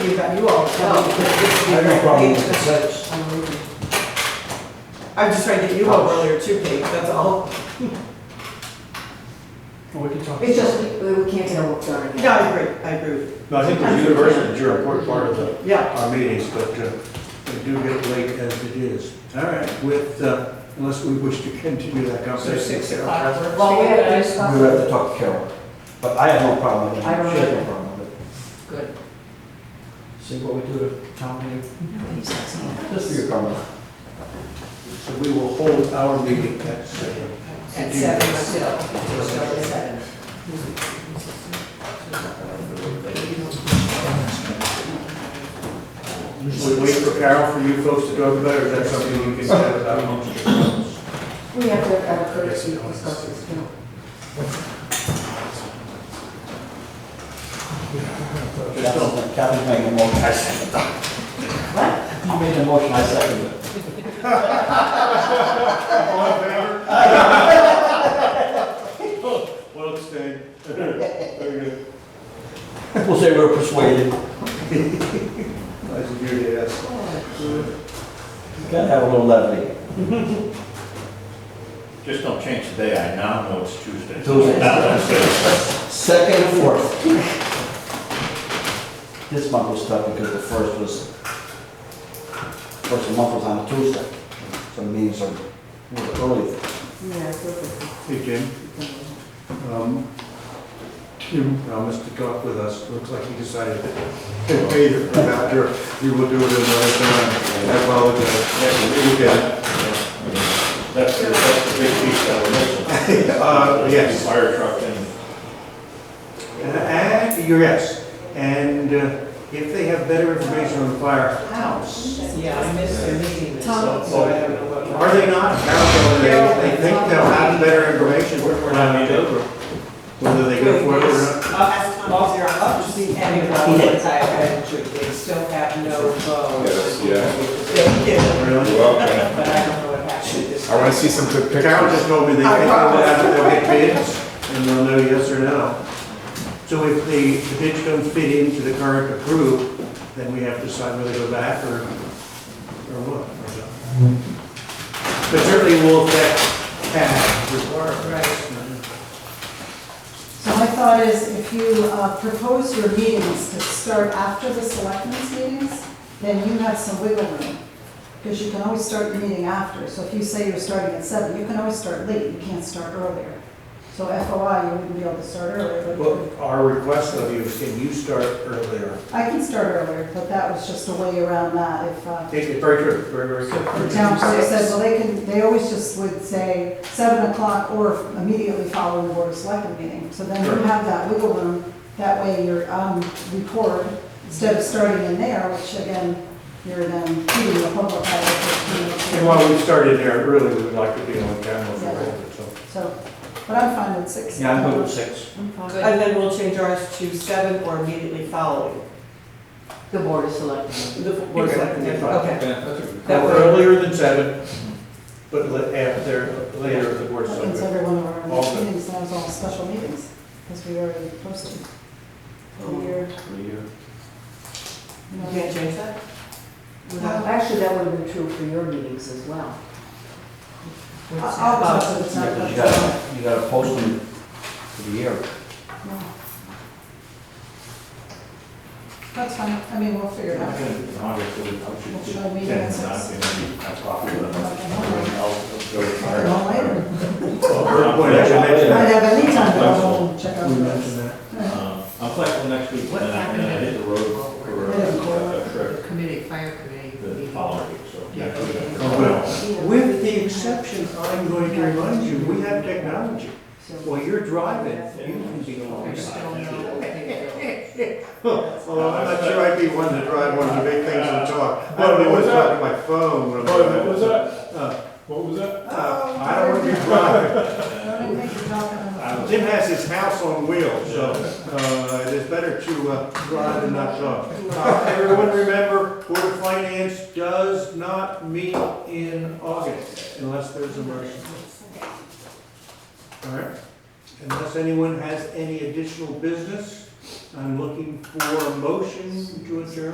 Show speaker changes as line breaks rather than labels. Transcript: you got, you all.
I have no problem with the six.
I'm just trying to get you all earlier too, Kate, that's all.
Well, we can talk.
It's just, we we can't get a work done.
Yeah, I agree, I agree. with
No, I think the universities are an important part of the,
you. Yeah,
our meetings, but uh, they do get late as it is. All right, with, uh, unless we wish to continue that
So
conversation.
six
Uh,
o'clock works
Well, we
for you
have to
guys?
discuss.
We would have to talk to Carol, but I have no problem with it.
I don't
She has no
either.
problem with it.
Good.
See what we do at town meeting.
Just for your comment. So we will hold our meeting at seven.
At seven still. We'll start at seven.
Should we wait for Carol for you folks to talk about, or is that something you can set without motion?
We have to have a courtesy discussion, you know.
That's all, Kevin's making a motion, I second it. What? You made a motion, I second it.
All in favor? Well, abstain. Very good.
We'll say we're persuaded,
Nice of you to ask.
oh,
gotta have a little levity.
Just don't change the day, I now know it's Tuesday.
Tuesday.
Now that's it.
Second and fourth. This month was tough because the first was, first month was on a Tuesday, so meetings are a little early.
Yeah, I feel good.
Hey, Jim. Um, Tim promised to talk with us, looks like he decided that later, after, he will do it another time. I apologize. Okay.
That's, the- that's the big piece that we're missing.
Uh, yes.
Fire truck and
And, you're yes, and uh, if they have better information on the firehouse,
yeah, I missed their meeting, so
Tom.
so I haven't know what.
Are they not? Carol, They, they think they'll have better information when I meet over, whether they go for it or not.
Uh, Well, they're up to the end of the ones I had, they still have no vote.
Yes, yeah.
They did,
Really?
Well,
but I don't know what happened this.
I want to see some good pictures.
Carol just told me they think they'll have, they'll get bids, and they'll know yes or no. So if the, the bids don't fit into the current approved, then we have to decide whether to go back or, or what. or not. But certainly will affect cash requirements.
So my thought is, if you uh, propose your meetings to start after the selectmen's meetings, then you have some wiggle room, because you can always start your meeting after. So if you say you're starting at seven, you can always start late, you can't start earlier. So FOI, you wouldn't be able to start earlier, but
Well, our request of you is can you start earlier?
I can start earlier, but that was just a way around that if, uh,
It's very true, very, very true.
The town clerk said, well, they can, they always just would say seven o'clock or immediately following the board of selectmen meeting. So then you
Sure.
have that wiggle room, that way you're on record, instead of starting in there, which again, you're then feeding the public by the fifteen minutes.
And while we started there, really, we would like to be on camera for a moment, so.
So, but I'm fine with six.
Yeah, I'm good with six.
I'm fine.
And then we'll change ours to seven or immediately following.
The board is selecting.
The board of selectmen,
Okay.
okay.
Now, Earlier than seven, but let- after, later, if the board's
That
so
means
good.
every one of our
All good.
meetings, now is all special meetings, because we already posted. And you're, you
You
know,
can't change that?
Well, Actually, that would have been true for your meetings as well.
I'll I'll talk to the town
Because
clerk.
you gotta, you gotta post them for the year.
No. That's fine, I mean, we'll figure it out.
obviously, I
Well,
should
should I
just
meet
tend
at
not
six?
to be a popular.
Okay.
I'll go to fire.
Well, later.
Well, her point, I should mention
I'd
that.
have any time to go home and check out
We
the
mentioned that.
Uh, I'm flexible next week, and I and I hit the road for a- a trip
Committee, fire committee.
the
meeting.
following week, so. next week I
Oh,
forgot.
well, With the exception, I'm going to remind you, we have technology. While you're driving, you can be on.
There's still no big
Well, I'm not sure I'd be one to drive one of the big things and talk. But it was on my phone. when I'm driving.
What was that?
Uh, I don't want to be driving.
Don't make your dog run away.
Jim has his house on wheels, so uh, it is better to uh, drive than not drive. Uh, Everyone remember, Board of Finance does not meet in August unless there's a motion. All right, unless anyone has any additional business, I'm looking for a motion to adjourn.